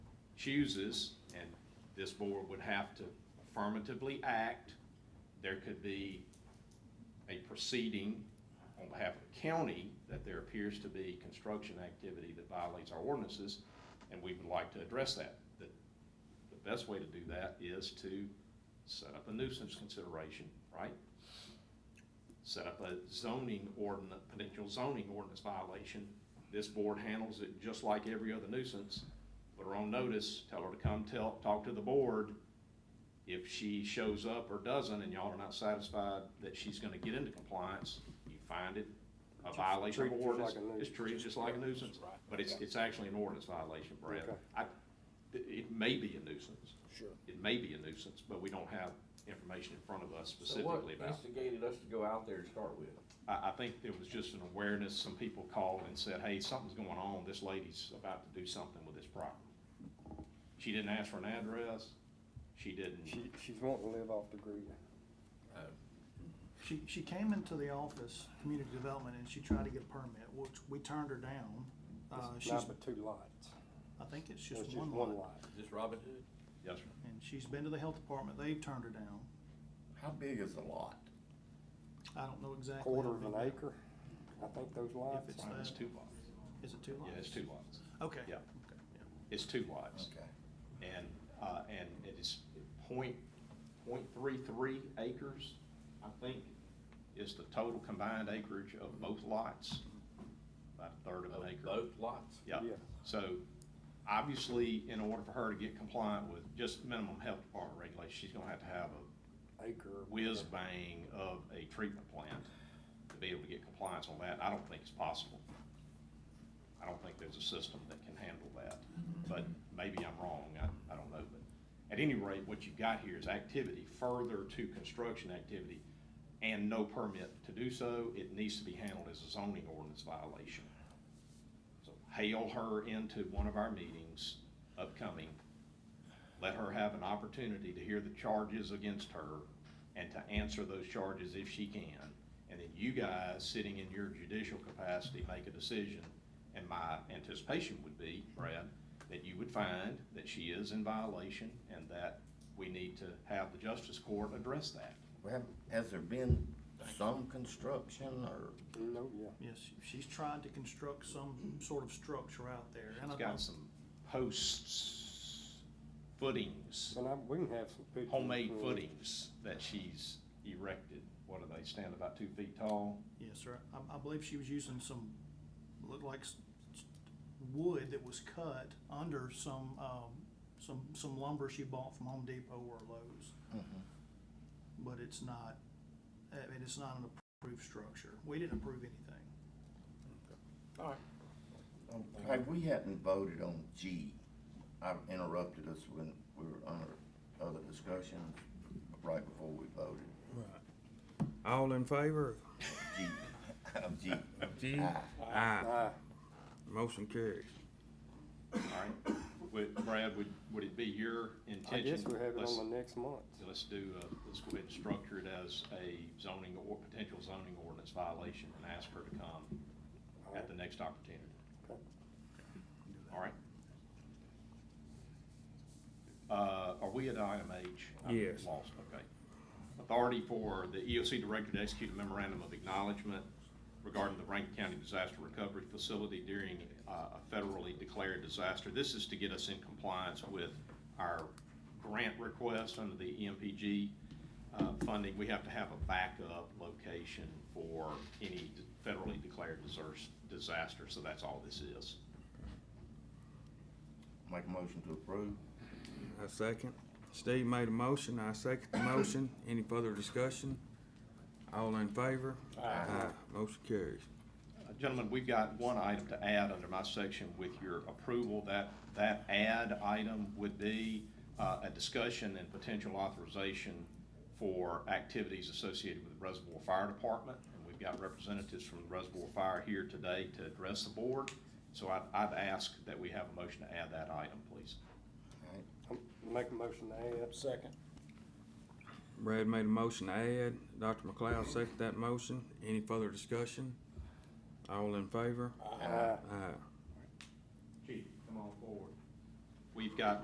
chooses, and this board would have to affirmatively act, there could be a proceeding on behalf of the county that there appears to be construction activity that violates our ordinances, and we would like to address that. The, the best way to do that is to set up a nuisance consideration, right? set up a zoning ordinance, potential zoning ordinance violation. This board handles it just like every other nuisance. Put her on notice, tell her to come tell, talk to the board. If she shows up or doesn't and y'all are not satisfied that she's gonna get into compliance, you find it a violation of treat it just ordinance. like a nu- It's treated just like a nuisance, Right. but it's, it's actually an ordinance violation, Brad. Okay. I, it- it may be a nuisance. Sure. It may be a nuisance, but we don't have information in front of us So what specifically about. instigated us to go out there to start with? I, I think there was just an awareness, some people called and said, hey, something's going on, this lady's about to do something with this property. She didn't ask for an address, she didn't, She, she's wanting to live off the grid. She, she came into the office, community development, and she tried to get a permit, which we turned her down. Uh, It's she's, Not but two lots. I think it's It's just just one one lot. lot. Is this Robin Hood? yes, sir. And she's been to the health department, they've turned her down. How big is the lot? I don't know exactly. Quarter how of an big that- acre, I think those lots. it's Well, It's that. two lots, Is it two lots? yeah, it's two lots, Okay. Yeah. Okay, yeah. it's two lots. Okay. And, uh, and it is point, point three three acres, I think, is the total combined acreage of both lots, about a third of an acre. Both lots? Yeah, Yeah. so obviously, in order for her to get compliant with just minimum health department regulations, she's gonna have to have a Acre. or whiz bang of a treatment plant to be able to get compliance on that. I don't think it's possible. I don't think there's a system that can handle that, but maybe I'm wrong, I, I don't know, but at any rate, what you've got here is activity further to construction activity and no permit to do so, it needs to be handled as a zoning ordinance violation. So hail her into one of our meetings upcoming. Let her have an opportunity to hear the charges against her and to answer those charges if she can. And then you guys, sitting in your judicial capacity, make a decision. And my anticipation would be, Brad, that you would find that she is in violation and that we need to have the justice court address that. Well, has there been some construction or? Mm, No, yeah. Yes, she's tried to construct some sort of structure out there, and I It's don't, got some posts, footings. And I, we can have some pictures. homemade when- footings that she's erected. What do they stand about two feet tall? yes, sir, I, I believe she was using some, looked like s- s- wood that was cut under some, um, some, some lumber she bought from Home Depot or Lowe's. Mm-hmm. But it's not, I mean, it's not an approved structure, we didn't approve anything. All right. Hey, we hadn't voted on G. I interrupted us when we were under other discussions right before we voted. All in favor? G, of G. G? Aye. Aye. Ah, Motion carries. All right. Would, Brad, would, would it be your I intention? guess we have it Let's- on the next month. Let's do, uh, let's go ahead and structure it as a zoning or potential zoning ordinance violation and ask her to come at the next opportunity. Okay. All right? Uh, are we at item H? I'm Yes. Lost, okay. Authority for the EOC Director to execute a memorandum of acknowledgement regarding the Rankin County Disaster Recovery Facility during, uh, a federally declared disaster. This is to get us in compliance with our grant request under the E EMPG, uh, funding. We have to have a backup location for any federally declared disers- disaster, so that's all this is. Make a motion to approve. I second. Steve made a motion, I second the motion. Any further discussion? All in favor? Aye. Motion carries. Uh, Gentlemen, we've got one item to add under my section with your approval. That, that add item would be uh, a discussion and potential authorization for activities associated with the Reservoir Fire Department. And we've got representatives from the Reservoir Fire here today to address the board. So I'd, I'd ask that we have a motion to add that item, please. All right. I'm- Make a motion to add. Second. Brad made a motion to add. Dr. McLeod seconded that motion. Any further discussion? All in favor? Ah. Aye. Chief, come on forward. We've got